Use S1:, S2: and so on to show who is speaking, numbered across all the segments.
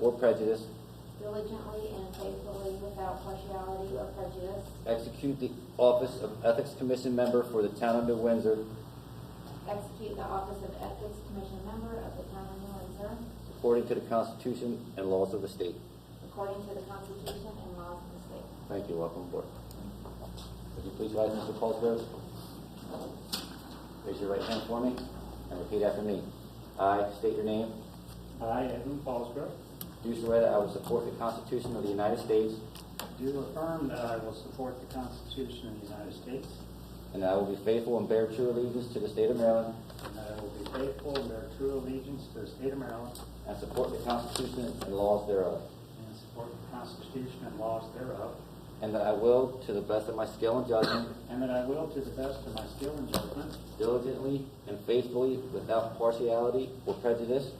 S1: or prejudice,
S2: diligently and faithfully without partiality or prejudice,
S1: execute the office of Ethics Commission Member for the Town of New Windsor
S2: execute the office of Ethics Commission Member of the Town of New Windsor
S1: according to the Constitution and laws of the state.
S2: according to the Constitution and laws of the state.
S1: Thank you, welcome aboard. Would you please rise, Mr. Paulsgrove? Raise your right hand for me and repeat after me. I state your name.
S3: I, Edwin Paulsgrove,
S1: Do swear that I will support the Constitution of the United States
S3: do affirm that I will support the Constitution of the United States,
S1: and that I will be faithful and bear true allegiance to the state of Maryland
S3: and that I will be faithful and bear true allegiance to the state of Maryland,
S1: and support the Constitution and laws thereof.
S3: and support the Constitution and laws thereof,
S1: And that I will, to the best of my skill and judgment,
S3: and that I will, to the best of my skill and judgment,
S1: diligently and faithfully, without partiality or prejudice,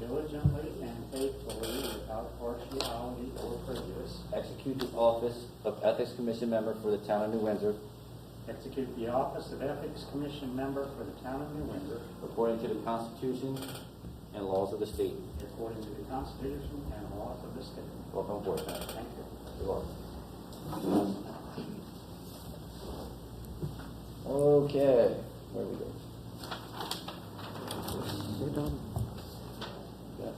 S3: diligently and faithfully, without partiality or prejudice,
S1: execute the office of Ethics Commission Member for the Town of New Windsor
S3: execute the office of Ethics Commission Member for the Town of New Windsor,
S1: according to the Constitution and laws of the state.
S3: according to the Constitution and laws of the state.
S1: Welcome aboard, Mayor.
S3: Thank you.
S1: You are. Okay, where we go? We're done. Yeah.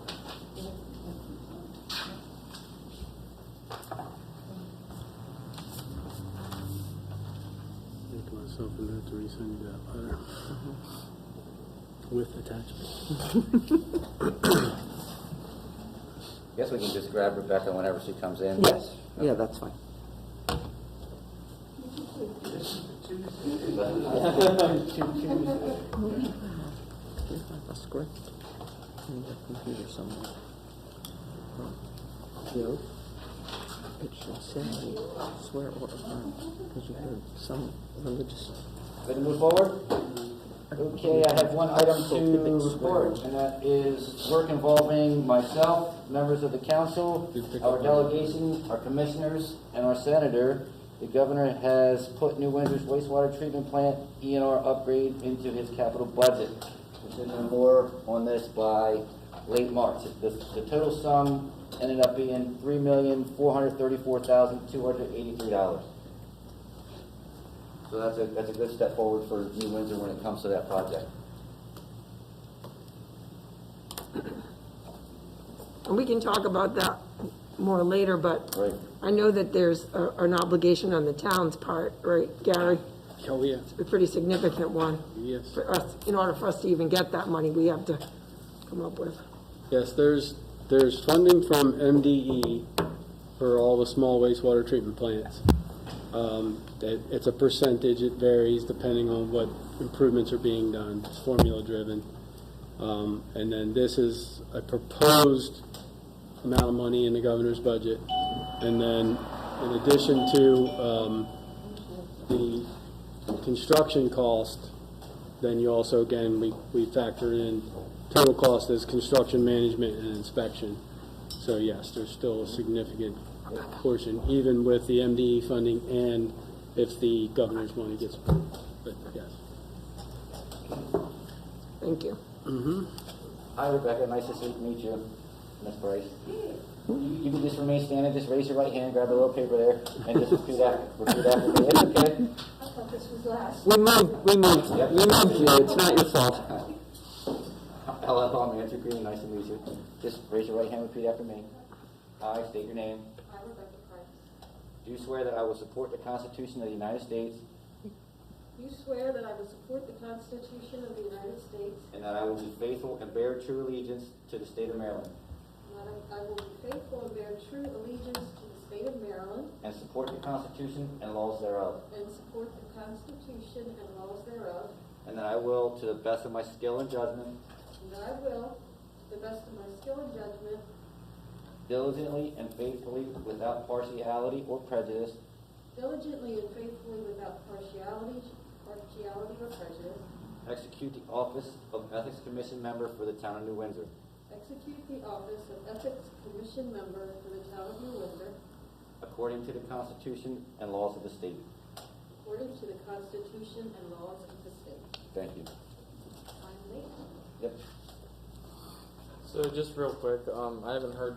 S4: Make myself a note to resend you that letter. With attachment.
S1: Guess we can just grab Rebecca whenever she comes in.
S5: Yes, yeah, that's fine. Here's my- a script in the computer somewhere. Joe, it should say, swear or affirm, because you heard some religious.
S1: Ready to move forward? Okay, I have one item to report, and that is work involving myself, members of the council, our delegation, our commissioners, and our senator. The governor has put New Windsor's wastewater treatment plant E and R upgrade into his capital budget. We should know more on this by late March. The, the total sum ended up being three million, four hundred thirty-four thousand, two hundred eighty-three dollars. So that's a, that's a good step forward for New Windsor when it comes to that project.
S6: And we can talk about that more later, but
S1: Right.
S6: I know that there's a- an obligation on the town's part, right, Gary?
S4: Oh, yeah,
S6: A pretty significant one.
S4: Yes.
S6: For us, in order for us to even get that money, we have to come up with.
S4: yes, there's, there's funding from MDE for all the small wastewater treatment plants. Um, that, it's a percentage, it varies depending on what improvements are being done, it's formula driven. Um, and then this is a proposed amount of money in the governor's budget. And then, in addition to, um, the construction cost, then you also, again, we, we factor in total cost as construction management and inspection. So yes, there's still a significant portion, even with the MDE funding and if the governor's money gets approved, but yes.
S6: Thank you.
S1: Hi Rebecca, nice to see- meet you, Miss Bryce. You you can just remain standing, just raise your right hand, grab a little paper there, and just repeat after, repeat after me, it's okay.
S2: I thought this was last.
S5: We moved, we moved, we moved you, it's not your fault.
S1: Hello, I'm Andrew Green, nice to meet you. Just raise your right hand, repeat after me. I state your name.
S2: I, Rebecca Price,
S1: Do swear that I will support the Constitution of the United States
S7: You swear that I will support the Constitution of the United States,
S1: and that I will be faithful and bear true allegiance to the state of Maryland
S7: and that I- I will be faithful and bear true allegiance to the state of Maryland,
S1: and support the Constitution and laws thereof.
S7: and support the Constitution and laws thereof,
S1: And that I will, to the best of my skill and judgment,
S7: and that I will, to the best of my skill and judgment,
S1: diligently and faithfully, without partiality or prejudice,
S7: diligently and faithfully without partiality partiality or prejudice,
S1: execute the office of Ethics Commission Member for the Town of New Windsor,
S7: execute the office of Ethics Commission Member for the Town of New Windsor,
S1: according to the Constitution and laws of the state.
S7: according to the Constitution and laws of the state.
S1: Thank you.
S7: I'm late.
S1: Yep.
S8: So just real quick, um, I haven't heard